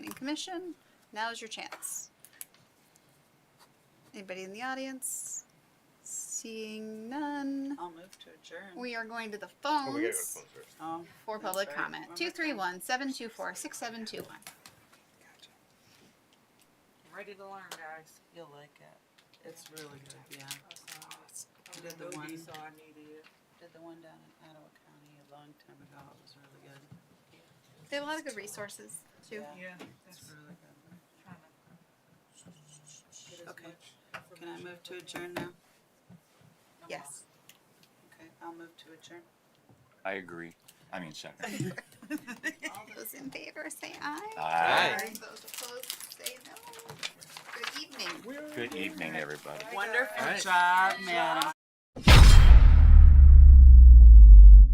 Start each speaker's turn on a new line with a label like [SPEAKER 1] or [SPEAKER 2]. [SPEAKER 1] commission. Now's your chance. Anybody in the audience? Seeing none.
[SPEAKER 2] I'll move to adjourn.
[SPEAKER 1] We are going to the
[SPEAKER 3] Oh, we gotta go to
[SPEAKER 1] phones
[SPEAKER 3] phone first.
[SPEAKER 2] Oh,
[SPEAKER 1] for
[SPEAKER 2] That's
[SPEAKER 1] public
[SPEAKER 2] right.
[SPEAKER 1] comment.
[SPEAKER 2] One more
[SPEAKER 1] Two three
[SPEAKER 2] time.
[SPEAKER 1] one seven two four six seven two one.
[SPEAKER 2] ready to learn, guys. You'll like it. It's really good, yeah. You did the one, did
[SPEAKER 4] So I needed it.
[SPEAKER 2] the one down in Ottawa County a long time ago. It was really good.
[SPEAKER 1] They have a lot of good resources too.
[SPEAKER 2] Yeah.
[SPEAKER 4] Yeah.
[SPEAKER 2] It's really good.
[SPEAKER 4] Get as
[SPEAKER 2] Okay.
[SPEAKER 4] much
[SPEAKER 2] Can I
[SPEAKER 4] information
[SPEAKER 2] move to
[SPEAKER 4] as we can.
[SPEAKER 2] adjourn now?
[SPEAKER 1] Yes.
[SPEAKER 2] Okay, I'll move to adjourn.
[SPEAKER 5] I agree. I mean, second.
[SPEAKER 1] All those in favor say aye.
[SPEAKER 5] Aye.
[SPEAKER 1] Those opposed say no. Good evening.
[SPEAKER 5] Good evening, everybody.
[SPEAKER 2] Wonderful
[SPEAKER 3] Alright.
[SPEAKER 2] job, madam.